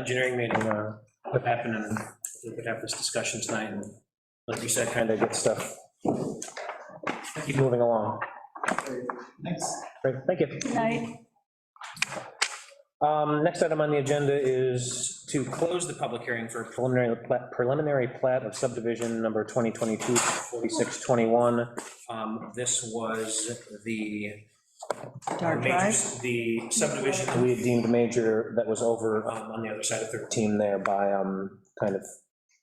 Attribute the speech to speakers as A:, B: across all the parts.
A: engineering meeting, uh, what happened, and we could have this discussion tonight, and like you said, kind of get stuff, keep moving along.
B: Thanks.
A: Great, thank you.
C: Night.
A: Um, Next item on the agenda is to close the public hearing for preliminary, plat- preliminary plat of subdivision number 2022-4621. Um, This was the.
C: Dark
A: major-
C: Drive.
A: The subdivision that we had deemed major that was over um, on the other side of 13 there by, um, kind of,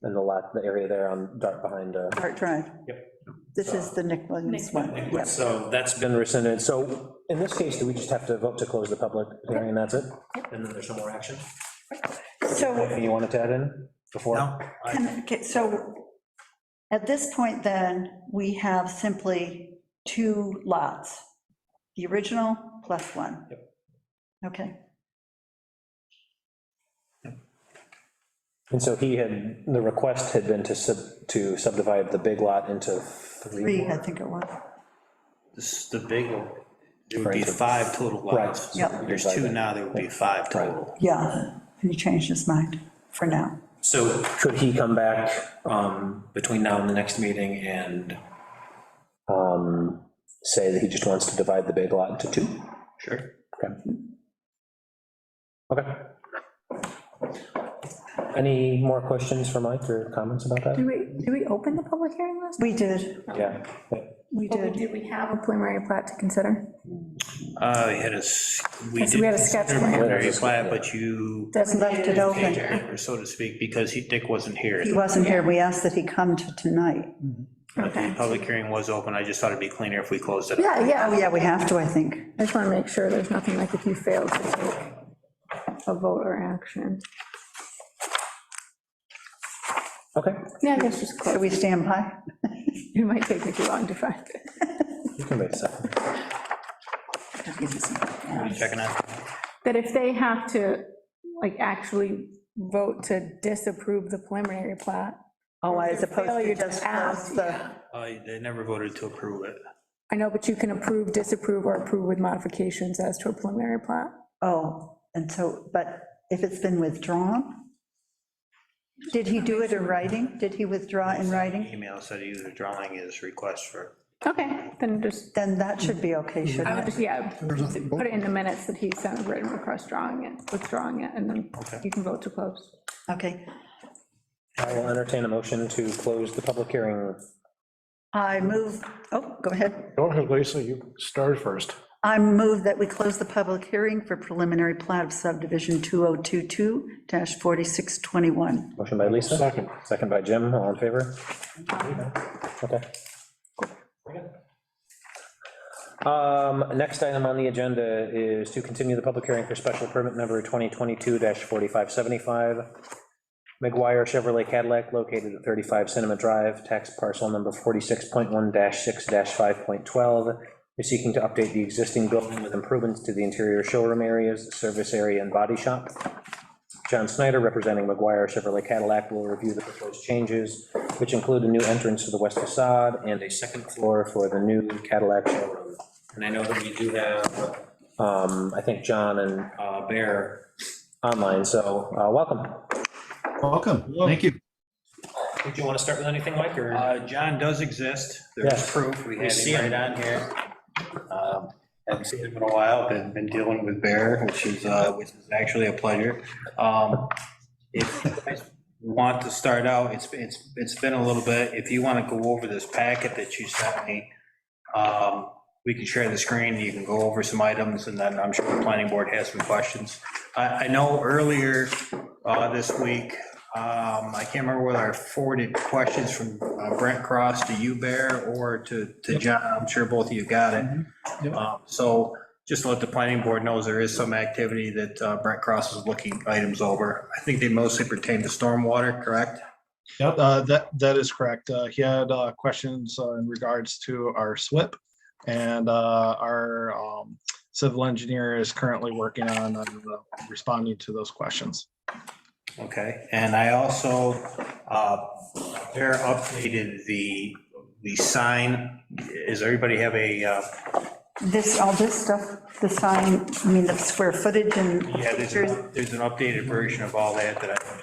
A: in the lot, the area there on, dark behind. uh,
C: Dark Drive.
A: Yep.
C: This is the Nick Williams
D: Nick
C: one. Yep.
A: So that's been rescinded. So in this case, do we just have to vote to close the public hearing, and that's it? And then there's no more action?
C: So,
A: Anything you wanted to add in before?
B: No,
C: can- okay, so at this point then, we have simply two lots, the original plus one. Okay,
A: And so he had, the request had been to sub, to subdivide the big lot into three
C: three, I
A: more.
C: think it was.
B: this is the big one. There would be five total
A: Right.
B: lots.
C: Yep.
B: There's two now, there would be five total.
C: Yeah, he changed his mind for now.
A: So could he come back um, between now and the next meeting and um, say that he just wants to divide the big lot into two?
B: Sure.
A: Okay. Okay. Any more questions for Mike or comments about that?
E: Did we, did we open the public hearing last?
C: We did,
A: Yeah.
C: we
E: Oh,
C: did.
E: Did we have a preliminary plat to consider?
B: Uh, we had a, s- we
E: Yes,
B: did.
E: we had a sketch plan.
B: Preliminary plat, but you,
C: We left it open.
B: or so to speak, because he, Dick wasn't here.
C: He wasn't here. We asked that he come to tonight.
B: But the
E: Okay.
B: public hearing was open, I just thought it'd be cleaner if we closed it.
E: Yeah,
C: Oh,
E: yeah,
C: yeah, we have to, I think.
E: I just want to make sure there's nothing like if you failed to take a vote or action.
A: Okay,
E: Yeah, I guess just
C: So
E: close.
C: we stand by?
E: It might take me too long to find it.
A: you can wait a second.
B: What are you Checking on.
E: That if they have to, like, actually vote to disapprove the preliminary plat,
C: Oh, as opposed to
E: Failure to
C: just
E: ask,
C: close the,
B: Uh, They never voted to approve it.
E: I know, but you can approve, disapprove, or approve with modifications as to a preliminary plat.
C: oh, and so, but if it's been withdrawn? Did he do it in writing? Did he withdraw in writing?
B: Email said he was withdrawing his request for,
E: Okay, then just,
C: Then that should be okay,
E: I would
C: shouldn't it?
E: just, yeah, put it in the minutes that he sent a written request drawing it, withdrawing it, and then you can vote to close.
C: Okay.
A: I will entertain a motion to close the public hearing.
C: I move, oh, go ahead.
F: Go ahead, Lisa, you start first.
C: I move that we close the public hearing for preliminary plat of subdivision 2022-4621.
A: Motion by Lisa.
F: Second.
A: Second by Jim, all in favor? Okay. Um, Next item on the agenda is to continue the public hearing for special permit number 2022-4575, McGuire Chevrolet Cadillac located at 35 Cinema Drive, tax parcel number 46.1-6-5.12. We're seeking to update the existing building with improvements to the interior showroom areas, service area, and body shop. John Snyder, representing McGuire Chevrolet Cadillac, will review the proposed changes, which include a new entrance to the west facade and a second floor for the new Cadillac showroom. And I know that we do have, um, I think, John and uh, Bear online, so uh, welcome.
G: Welcome, thank you.
A: Did you want to start with anything, Mike, or?
B: Uh, John does exist, there's
A: Yes.
B: proof, we
A: We
B: had
A: see
B: him right on here. Um, Haven't seen him in a while, been, been dealing with Bear, which is, uh, which is actually a pleasure. Um, If you guys want to start out, it's, it's, it's been a little bit, if you want to go over this packet that you sent me, um, we can share the screen, you can go over some items, and then I'm sure the planning board has some questions. I, I know earlier uh, this week, um, I can't remember whether I forwarded questions from uh, Brent Cross to you, Bear, or to, to John, I'm sure both of you got it.
G: Yep.
B: Um, So just to let the planning board knows, there is some activity that uh, Brent Cross is looking items over. I think they mostly pertain to stormwater, correct?
G: Yep, uh, that, that is correct. Uh, He had uh, questions uh, in regards to our SWIP. And uh, our um, civil engineer is currently working on uh, responding to those questions.
B: Okay, and I also, uh, Bear updated the, the sign. Does everybody have a, uh,
C: This, all this stuff, the sign, I mean, the square footage and
B: Yeah, there's,
C: pictures.
B: an- there's an updated version of all that that I